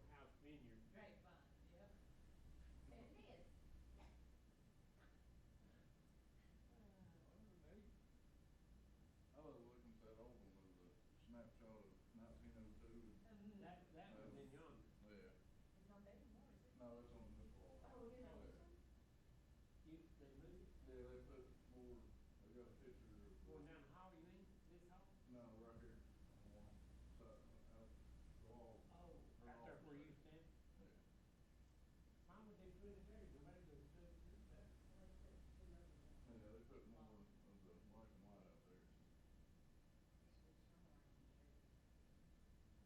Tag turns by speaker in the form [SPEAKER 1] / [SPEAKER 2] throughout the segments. [SPEAKER 1] vineyard.
[SPEAKER 2] Grapevine, yep. There it is.
[SPEAKER 3] I was looking at that old one with the snapshot of nineteen oh two and,
[SPEAKER 2] Um,
[SPEAKER 1] That, that would have been yonder.
[SPEAKER 3] yeah,
[SPEAKER 2] It's not there anymore, is it?
[SPEAKER 3] no, that's on this wall.
[SPEAKER 2] Oh, it is on this one?
[SPEAKER 1] You, they moved, it.
[SPEAKER 3] Yeah, they put more, they got a picture of.
[SPEAKER 1] going down the hall, you mean, this hall?
[SPEAKER 3] No, right here, on one side, out the wall,
[SPEAKER 1] Oh, right there where you stand.
[SPEAKER 3] yeah.
[SPEAKER 1] Why would they put it there? Nobody would put it there.
[SPEAKER 3] Yeah, they put more of the black and white out there.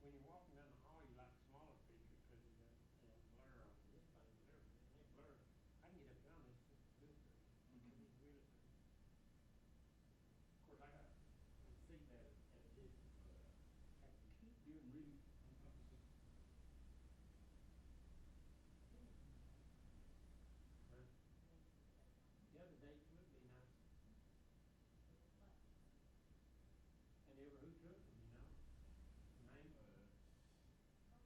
[SPEAKER 1] When you're walking down the hall, you like smaller pictures because you got that blur on this thing, and everything. They blur. I can get up down this, this,
[SPEAKER 3] Mhm.
[SPEAKER 1] this wheel thing. Of course, I got, I can see that at a distance, but I can keep doing really. Huh? The other day it would be nice, and ever who took them, you know? Name,
[SPEAKER 3] Yeah, yeah, that's where,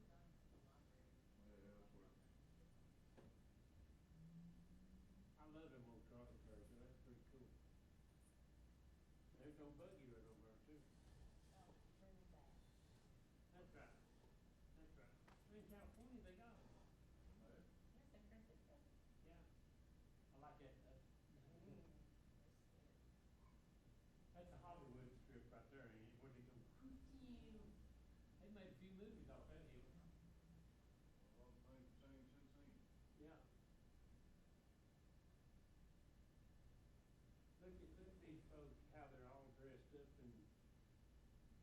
[SPEAKER 1] I love them old trolley cars, so that's pretty cool. There's no buggy right over there too. That's right. That's right. In California, they got them.
[SPEAKER 3] yeah.
[SPEAKER 1] Yeah. I like that. that- That's a Hollywood strip right there, ain't it? Where they go, they made a few movies off that hill.
[SPEAKER 3] A lot of things changed since then.
[SPEAKER 1] Yeah. Look at, look at these folks, how they're all dressed up in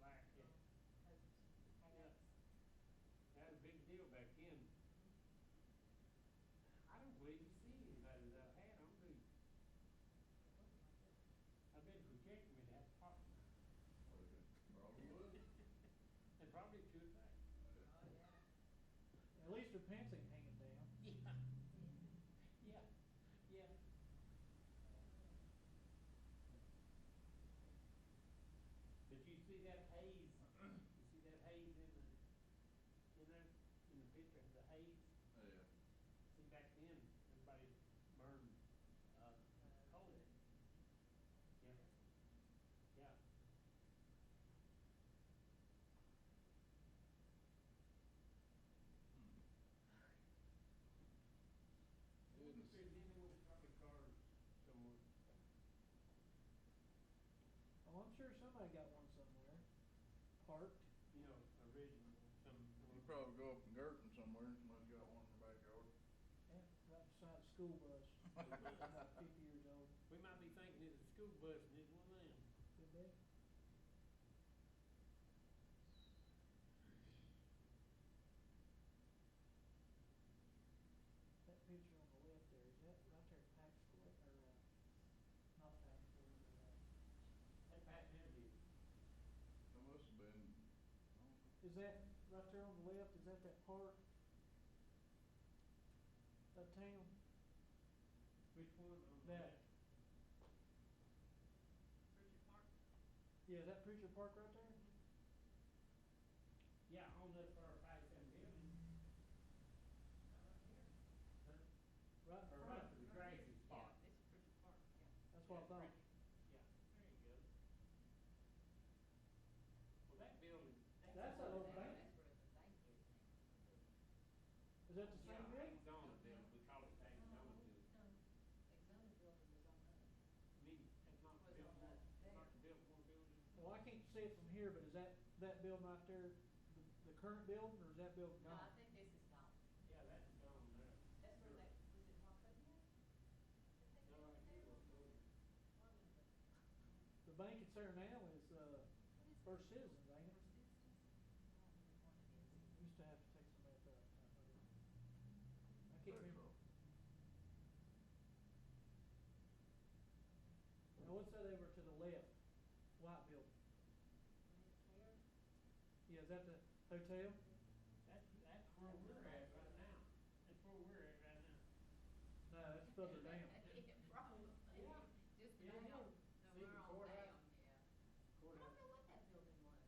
[SPEAKER 1] black. It- That was a big deal back then. I don't believe you see anybody without a hat on, do you? I bet if we checked them, it'd have to pop.
[SPEAKER 3] Probably would.
[SPEAKER 1] And probably should back.
[SPEAKER 3] Yeah.
[SPEAKER 4] At least her pants ain't hanging down.
[SPEAKER 1] Yeah. Yeah, yeah. Did you see that haze? You see that haze in the, in there, in the picture, the haze?
[SPEAKER 3] Yeah.
[SPEAKER 1] See, back then, everybody burned, uh, coal. Yeah, yeah.
[SPEAKER 3] It
[SPEAKER 1] If
[SPEAKER 3] was,
[SPEAKER 1] there's anyone with a car somewhere,
[SPEAKER 4] Oh, I'm sure somebody got one somewhere. Parked.
[SPEAKER 1] you know, original, some.
[SPEAKER 3] you probably go up in Girton somewhere, and somebody's got one in the backyard.
[SPEAKER 4] Yeah, eh, right beside the school bus. About fifty years old.
[SPEAKER 1] We might be thinking it's a school bus and it's one of them.
[SPEAKER 4] Could be. That picture on the left there, is that right there at Pax Court or, uh, not Pax Court, but, uh,
[SPEAKER 1] That Pat Henry,
[SPEAKER 3] It must have been,
[SPEAKER 4] is that right there on the left, is that that park? That town?
[SPEAKER 1] which one? on the left?
[SPEAKER 4] That. Yeah, is that Preacher Park right there?
[SPEAKER 1] Yeah, on that far five seven building. Huh?
[SPEAKER 4] Right in
[SPEAKER 1] Or
[SPEAKER 4] front.
[SPEAKER 1] right to the crazy spot.
[SPEAKER 4] That's what I thought.
[SPEAKER 1] Yeah, there you go. Well, that building,
[SPEAKER 4] That's an old bank. Is that the
[SPEAKER 1] yeah,
[SPEAKER 4] same building?
[SPEAKER 1] Hangzona building, we call it Hangzona building. I mean, it's not
[SPEAKER 2] Was
[SPEAKER 1] built,
[SPEAKER 2] on that
[SPEAKER 1] more- it's not
[SPEAKER 2] there.
[SPEAKER 1] the built more building.
[SPEAKER 4] Well, I can't see it from here, but is that, that building right there, the, the current building, or is that building
[SPEAKER 2] No, I
[SPEAKER 4] gone?
[SPEAKER 2] think this is not.
[SPEAKER 1] Yeah, that's gone there.
[SPEAKER 2] That's where that, was it Hawk up here?
[SPEAKER 1] No, I think it was building.
[SPEAKER 4] The bank that's there now is, uh, First Citizens, ain't it? Used to have to take some of that, uh, I can't remember. Now, what's that over to the left? White building. Yeah, is that the hotel?
[SPEAKER 1] That's, that's where we're at right now. That's where we're at right now.
[SPEAKER 4] No, that's further down.